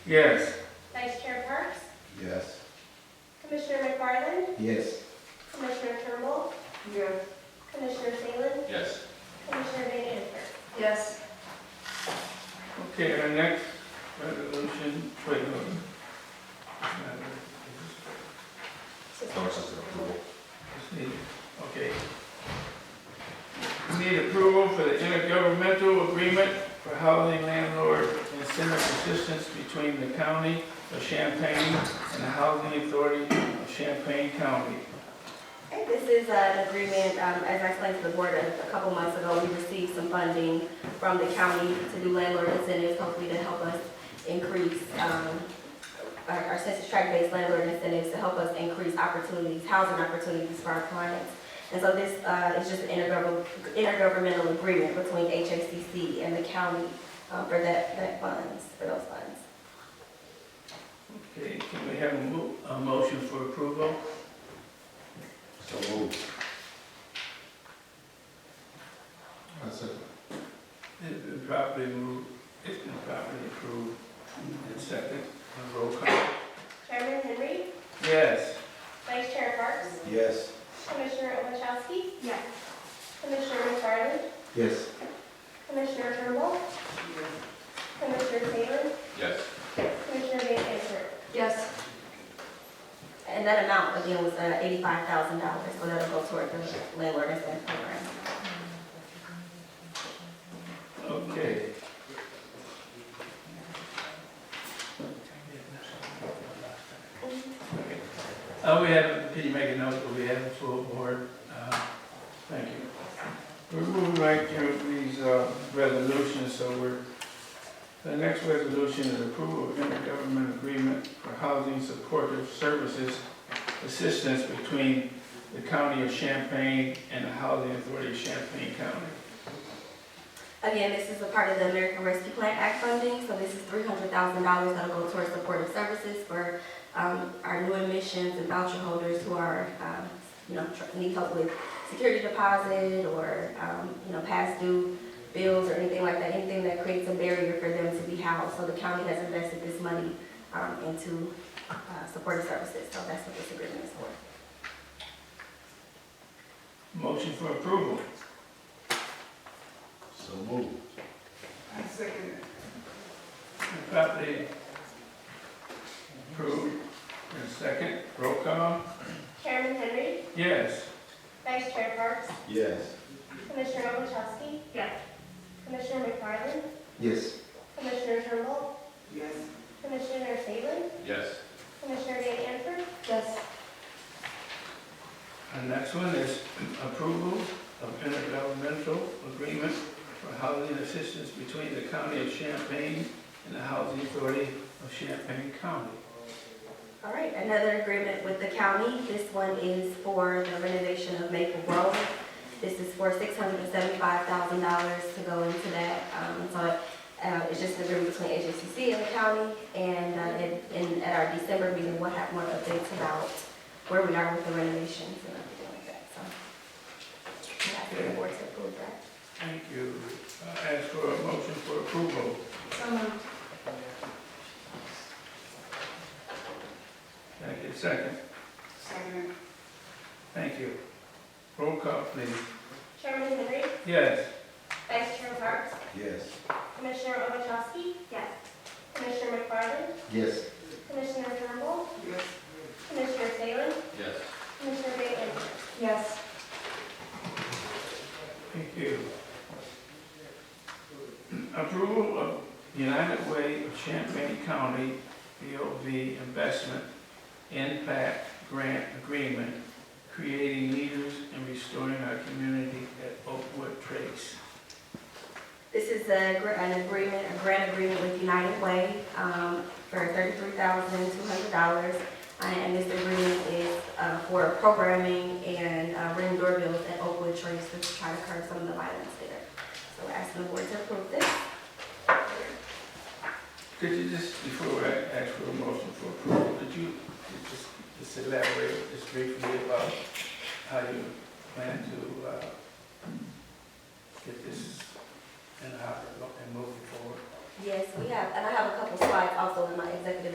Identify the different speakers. Speaker 1: Yes.
Speaker 2: Vice Chair Parks,
Speaker 3: Yes.
Speaker 2: Commissioner McFarland,
Speaker 3: Yes.
Speaker 2: Commissioner Turnbull,
Speaker 4: Yes.
Speaker 2: Commissioner Salin,
Speaker 3: Yes.
Speaker 2: Commissioner Van Antwerp.
Speaker 4: Yes.
Speaker 1: Okay, our next resolution, wait, no.
Speaker 3: Sources of approval.
Speaker 1: Just need- Okay. We Need approval for the intergovernmental agreement for housing landlord incentive assistance between the county of Champaign and the Housing Authority of Champaign County.
Speaker 5: Okay, This is an agreement, um, as I explained to the board a a couple months ago, we received some funding from the county to do landlord incentives, hopefully to help us increase um, our our census tract-based landlord incentives to help us increase opportunities, housing opportunities for our clients. And so this uh, is just an intergovern- intergovernmental agreement between HACC and the county uh, for that, that funds, for those funds.
Speaker 1: Okay, can we have a mo- a motion for approval?
Speaker 3: So moved. That's it.
Speaker 1: It's been properly moved, it's been properly approved. And second, a roll call.
Speaker 2: Chairman Henry,
Speaker 1: Yes.
Speaker 2: Vice Chair Parks,
Speaker 3: Yes.
Speaker 2: Commissioner Ovechowski,
Speaker 4: Yes.
Speaker 2: Commissioner McFarland,
Speaker 3: Yes.
Speaker 2: Commissioner Turnbull, Commissioner Salin,
Speaker 3: Yes.
Speaker 2: Commissioner Van Antwerp.
Speaker 4: Yes.
Speaker 5: And that amount, again, was uh, $85,000, so that'll go toward the landlord incentive program.
Speaker 1: Okay. Uh, we have, can you make a note that we have a full board? Uh, Thank you. We're moving right through these, uh, resolutions, so we're, the next resolution is approval of intergovernmental agreement for housing supportive services assistance between the county of Champaign and the Housing Authority of Champaign County.
Speaker 5: Again, this is a part of the American Rescue Plan Act funding, so this is three hundred thousand dollars that'll go towards supportive services for, um, our new admissions and voucher holders who are, um, you know, tr- need help with security deposit or, um, you know, past due bills or anything like that, anything that creates a barrier for them to be housed. So the county has invested this money, um, into, uh, supportive services, so that's what this agreement is for.
Speaker 1: Motion for approval.
Speaker 3: So moved.
Speaker 4: I second it.
Speaker 1: Properly approved. And second, roll call.
Speaker 2: Chairman Henry,
Speaker 1: Yes.
Speaker 2: Vice Chair Parks,
Speaker 3: Yes.
Speaker 2: Commissioner Ovechowski,
Speaker 4: Yes.
Speaker 2: Commissioner McFarland,
Speaker 3: Yes.
Speaker 2: Commissioner Turnbull,
Speaker 4: Yes.
Speaker 2: Commissioner Salin,
Speaker 3: Yes.
Speaker 2: Commissioner Van Antwerp,
Speaker 4: Yes.
Speaker 1: And next one is approval of intergovernmental agreement for housing assistance between the county of Champaign and the Housing Authority of Champaign County.
Speaker 5: All right, another agreement with the county. This one is for the renovation of Maple Grove. This is for six hundred and seventy-five thousand dollars to go into that. Um, so, uh, it's just an agreement between HSCC and the county. And, uh, in, in, at our December meeting, we'll have more updates about where we are with the renovations and everything like that, so. we have to the board to approve that.
Speaker 1: Thank you. I ask for a motion for approval.
Speaker 4: So moved.
Speaker 1: Thank you. Second,
Speaker 4: Second it.
Speaker 1: thank you. Roll call, please.
Speaker 2: Chairman Henry,
Speaker 1: Yes.
Speaker 2: Vice Chair Parks,
Speaker 3: Yes.
Speaker 2: Commissioner Ovechowski,
Speaker 5: Yes.
Speaker 2: Commissioner McFarland,
Speaker 3: Yes.
Speaker 2: Commissioner Turnbull,
Speaker 4: Yes.
Speaker 2: Commissioner Salin,
Speaker 3: Yes.
Speaker 2: Commissioner Van Antwerp.
Speaker 4: Yes.
Speaker 1: Thank you. Approval of United Way of Champaign County BOV Investment Impact Grant Agreement, creating leaders and restoring our community at Oakwood Trace.
Speaker 5: This is a, gr- an agreement, a grant agreement with United Way, um, for thirty-three thousand two hundred dollars. And this agreement is, uh, for programming and, uh, ring doorbells at Oakwood Trace to try to curb some of the violence there. So we're asking the board to approve this.
Speaker 1: Could you just, before I ask for a motion for approval, could you just, just elaborate just briefly about how you plan to, uh, get this in, oper- and move it forward?
Speaker 5: Yes, we have, and I have a couple slides also in my executive